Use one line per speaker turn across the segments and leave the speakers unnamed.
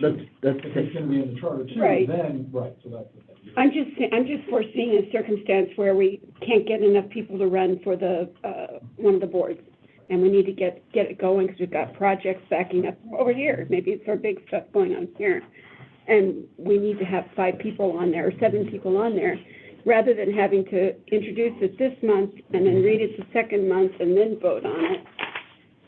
That's, that's,
If it's gonna be in the charter too,
Right.
then, right, so that's the thing.
I'm just, sa- I'm just foreseeing a circumstance where we can't get enough people to run for the, uh, one of the boards. And we need to get, get it going, because we've got projects backing up over here, maybe it's our big stuff going on here. And we need to have five people on there, or seven people on there, rather than having to introduce it this month, and then read it the second month, and then vote on it.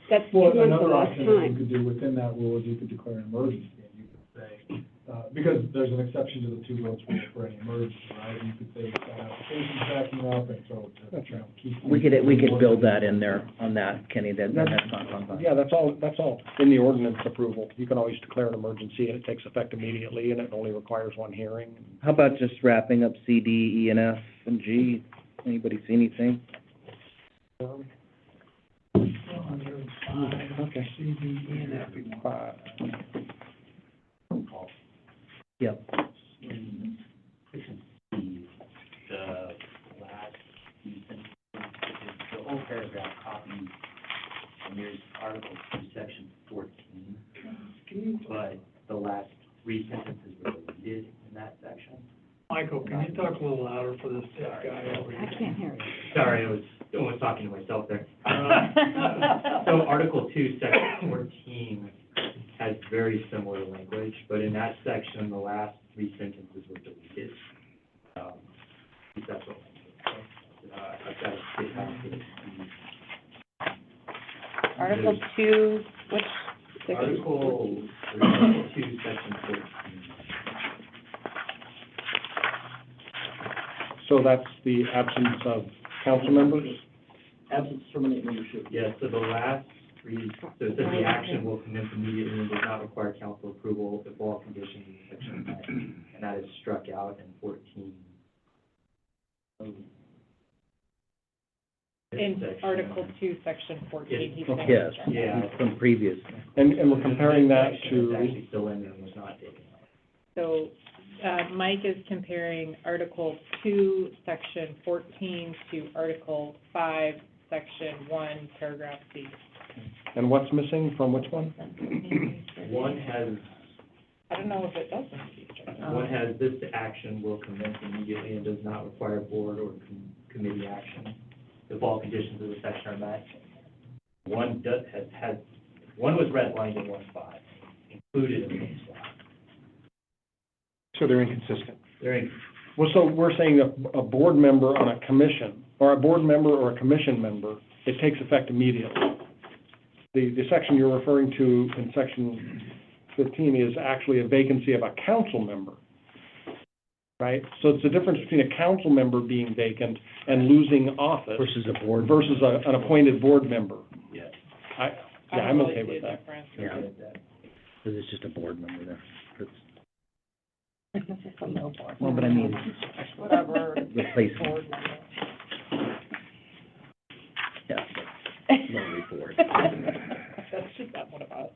That's two
Well,
months of
another
lost
option that you
time.
could do within that rule is you could declare an emergency, and you could say, uh, because there's an exception to the two votes rule for any emergency, right? You could say, uh, application's backing up, and so, you know, keep.
we could, we could build that in there on that, Kenny, that, that's not on that.
Yeah, that's all, that's all in the ordinance approval. You can always declare an emergency and it takes effect immediately and it only requires one hearing.
How about just wrapping up C, D, E, and F, and G? Anybody see anything?
Um,
Okay.
uh,
Yep.
in, this is the, the last, sentence. the whole paragraph copying Amir's article from section fourteen, but the last three sentences were deleted in that section.
Michael, can you talk a little louder for this deaf guy over here?
I can't hear you.
Sorry, I was almost talking to myself there.
Uh.
So Article two, section fourteen has very similar language, but in that section, the last three sentences were deleted. Um, That's what. uh, I've got to get back to the-
Article two, which,
Article, Article two, section fourteen.
So that's the absence of council members?
Absence terminate membership. Yes, so the last three, so it says the action will commence immediately and does not require council approval if all conditions in section are met, and that is struck out in fourteen.
in
Section.
Article two, section fourteen, he said.
Yes.
Yeah.
From previous.
And, and we're comparing that
This section is
to,
actually still in there and was not taken out.
So, uh, Mike is comparing Article two, section fourteen to Article five, section one, paragraph C.
and what's missing from which one?
One has,
I don't know if it does in future.
one has this action will commence immediately and does not require board or com- committee action if all conditions of the section are met. One does, has, has, one was redlined in one spot, included in one spot.
So they're inconsistent.
They're in-
Well, so we're saying a, a board member on a commission, or a board member or a commission member, it takes effect immediately. The, the section you're referring to in section fifteen is actually a vacancy of a council member, right? So it's the difference between a council member being vacant and losing office
Versus a board.
versus a, an appointed board member.
Yes.
I, yeah, I'm okay with that.
Yeah.
I did that.
Because it's just a board member there. That's-
Whatever.
Well, but I mean, replacement,
board member.
yeah, but lonely board.
That's just not one of us.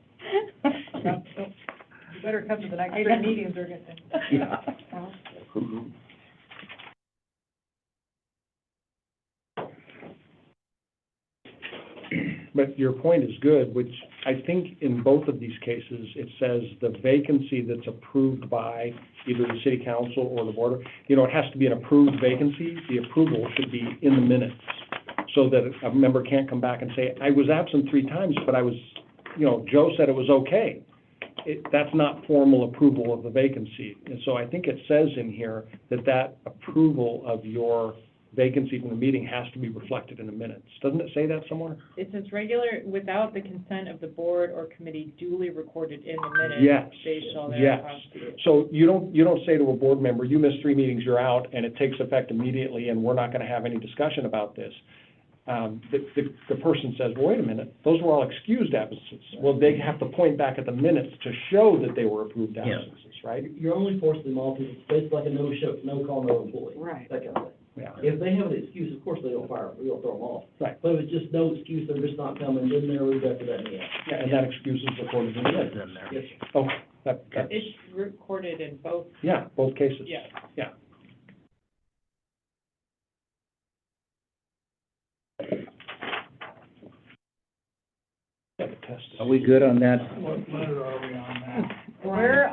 Better come to the next three meetings or
Yeah.
But your point is good, which I think in both of these cases, it says the vacancy that's approved by either the city council or the board, you know, it has to be an approved vacancy. The approval should be in the minutes, so that a member can't come back and say, I was absent three times, but I was, you know, Joe said it was okay. It, that's not formal approval of the vacancy. And so I think it says in here that that approval of your vacancy from the meeting has to be reflected in the minutes. Doesn't it say that somewhere?
It says regular, without the consent of the board or committee duly recorded in the minutes.
Yes,
They shall
yes.
thereof.
So you don't, you don't say to a board member, you missed three meetings, you're out, and it takes effect immediately, and we're not gonna have any discussion about this. Um, the, the, the person says, well, wait a minute, those were all excused absences. Well, they have to point back at the minutes to show that they were approved
Yeah.
absences, right?
You're only forcing them all to, it's basically like a no show, no call, no employee.
Right.
That kind of thing.
Yeah.
If they have an excuse, of course they don't fire them, we don't throw them off.
Right.
But if it's just no excuse, they're just not coming, then they're rejected at the end.
Yeah, And that excuse is recorded in the minutes.
Then there.
Yes,
Oh, that, that,
It's recorded in both,
yeah, both cases.
yes.
Yeah, the test is-
Are we good on that? Oh,
What letter are we on now?
Where